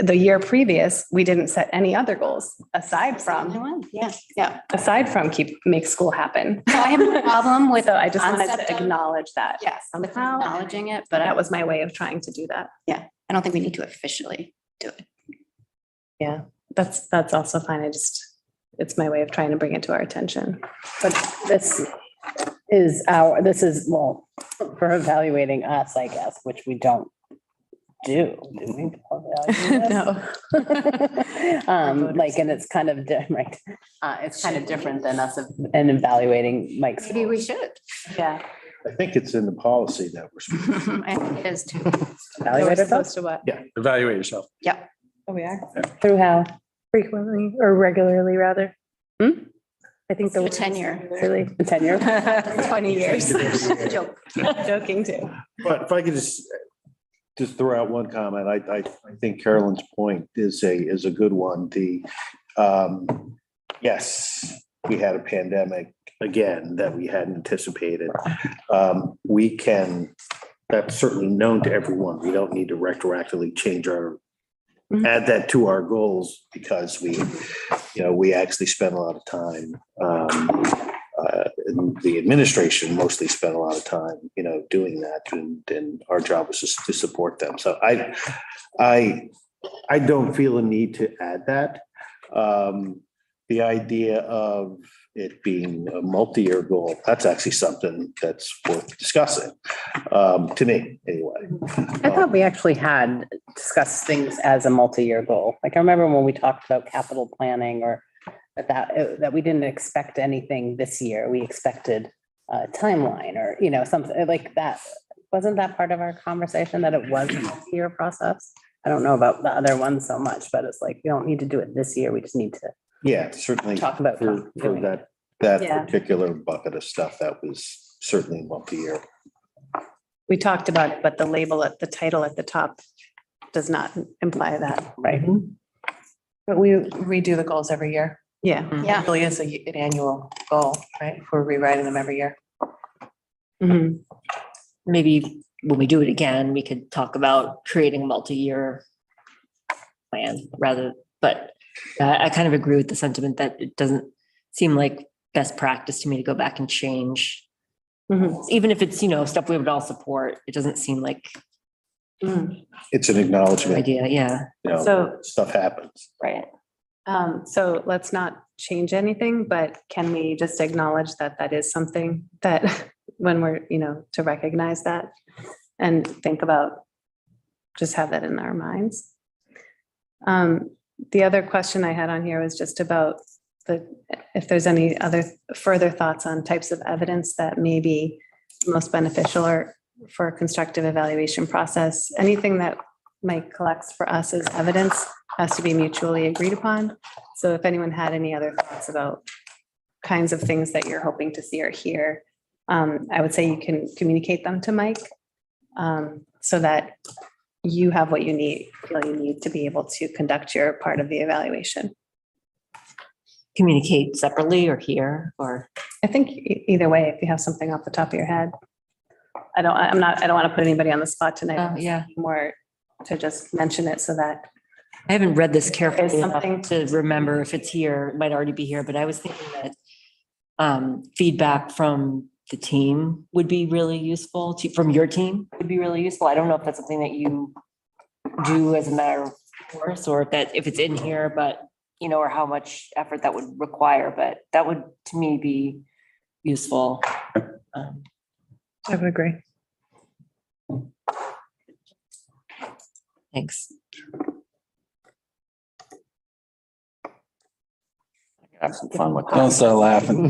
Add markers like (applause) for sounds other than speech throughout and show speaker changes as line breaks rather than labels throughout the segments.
the year previous, we didn't set any other goals aside
Only
from,
one, Yeah, yeah.
aside from keep, make school happen.
(laughs) So I have a problem with,
(laughs) So I just wanted
concept
to
of-
acknowledge that.
yes, I'm
Somehow.
acknowledging it, but I
That was my way of trying to do that.
I don't think we need to officially do it.
Yeah, that's, that's also fine. I just, it's my way of trying to bring it to our
(laughs)
attention.
But this is our, this is, well, for evaluating us, I guess, which we don't do. do (laughs) we evaluate (laughs) us?
No.
Um, like, and it's kind of different, uh, it's kind of different than us of- and evaluating Mike's.
Maybe we should.
Yeah.
I think it's in the policy that we're. supposed
(laughs) I think it is too.
So we're
evaluated us
supposed to what?
Yeah, evaluate yourself.
Oh, we are.
Through how?
frequently or regularly rather.
Hmm?
I think
The
the.
tenure. (laughs)
Really,
The Tenure?
(laughs)
Twenty years.
Joke.
(laughs) Joking too.
But if I could just, just throw out one comment, I, I, I think Carolyn's point is a, is a good one. The, um, yes, we had a pandemic again that we hadn't anticipated. Um, we can, that's certainly known to everyone. We don't need to retroactively change our, add that to our goals because we, you know, we actually spent a lot of time, um, uh, and the administration mostly spent a lot of time, you know, doing that, and, and our job was just to support them. So I, I, I don't feel a need to add that. Um, the idea of it being a multi-year goal, that's actually something that's worth discussing, um, to me, anyway. Um,
I thought we actually had discussed things as a multi-year goal. Like I remember when we talked about capital planning or that, that we didn't expect anything this year. We expected a timeline or, you know, something uh, like that. Wasn't that part of our conversation that it was a multi-year process? I don't know about the other ones so much, but it's like, we don't need to do it this year. We just need to
Yeah, certainly.
talk about.
For, for
doing it.
that, that
Yeah.
particular bucket of stuff, that was certainly multi-year.
We talked about it, but the label at the title at the top does not imply that.
Right.
But we redo the goals every year.
Yeah.
Yeah.
It really is a, an annual goal, right? We're rewriting them every year.
Mhm.
maybe when we do it again, we could talk about creating a multi-year plan rather, but uh, I, I kind of agree with the sentiment that it doesn't seem like best practice to me to go back and change.
Mhm.
Even if it's, you know, stuff we would all support, it doesn't seem like
It's an acknowledgement,
idea, yeah.
you know,
So,
stuff happens.
Right.
um, so let's not change anything, but can we just acknowledge that that is something that (laughs) when we're, you know, to recognize that and think about, just have that in our minds. Um, the other question I had on here was just about the, if there's any other further thoughts on types of evidence that may be most beneficial or for a constructive evaluation process, anything that Mike collects for us as evidence has to be mutually agreed upon. So if anyone had any other thoughts about kinds of things that you're hoping to see or hear, um, I would say you can communicate them to Mike um, so that you have what you need, feel you need to be able to conduct your part of the evaluation.
Communicate separately or here or
I think e- either way, if you have something off the top of your head. I don't, I'm not, I don't want to put anybody on the spot
Oh,
Um,
tonight,
yeah.
more to just mention it so that
I haven't read this carefully
something-
enough to remember if it's here, it might already be here, but I was thinking that um, feedback from the team would be really useful, to- from your team would be really useful. I don't know if that's something that you do as a matter of course, or if that, if it's in here, but, you know, or how much effort that would require, but that would, to me, be useful. Um,
I would agree.
Thanks.
Have some fun with that. Don't start laughing.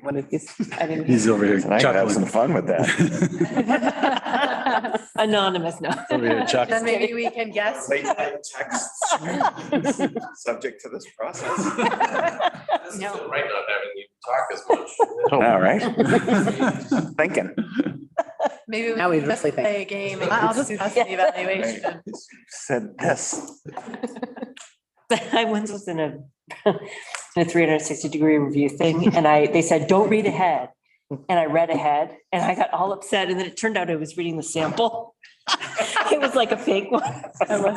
What did you say? I didn't-
He's over here
And I can have some
chuckling.
fun with that.
(laughs) Anonymous, no.
(laughs)
Over here chuckling.
Then maybe we can guess.
Late night texts,
(laughs)
subject to this process.
No.
right not having you talk as much.
All (laughs) right, thinking.
Maybe we
Now we
can just
really think.
play a game. I'll just pass the evaluation.
Said this.
(laughs) I once was in a, (laughs) in a three hundred and sixty degree review thing and I, they said, don't read ahead. And I read ahead and I got all upset and then it turned out I was reading the sample. (laughs) It was like a fake one.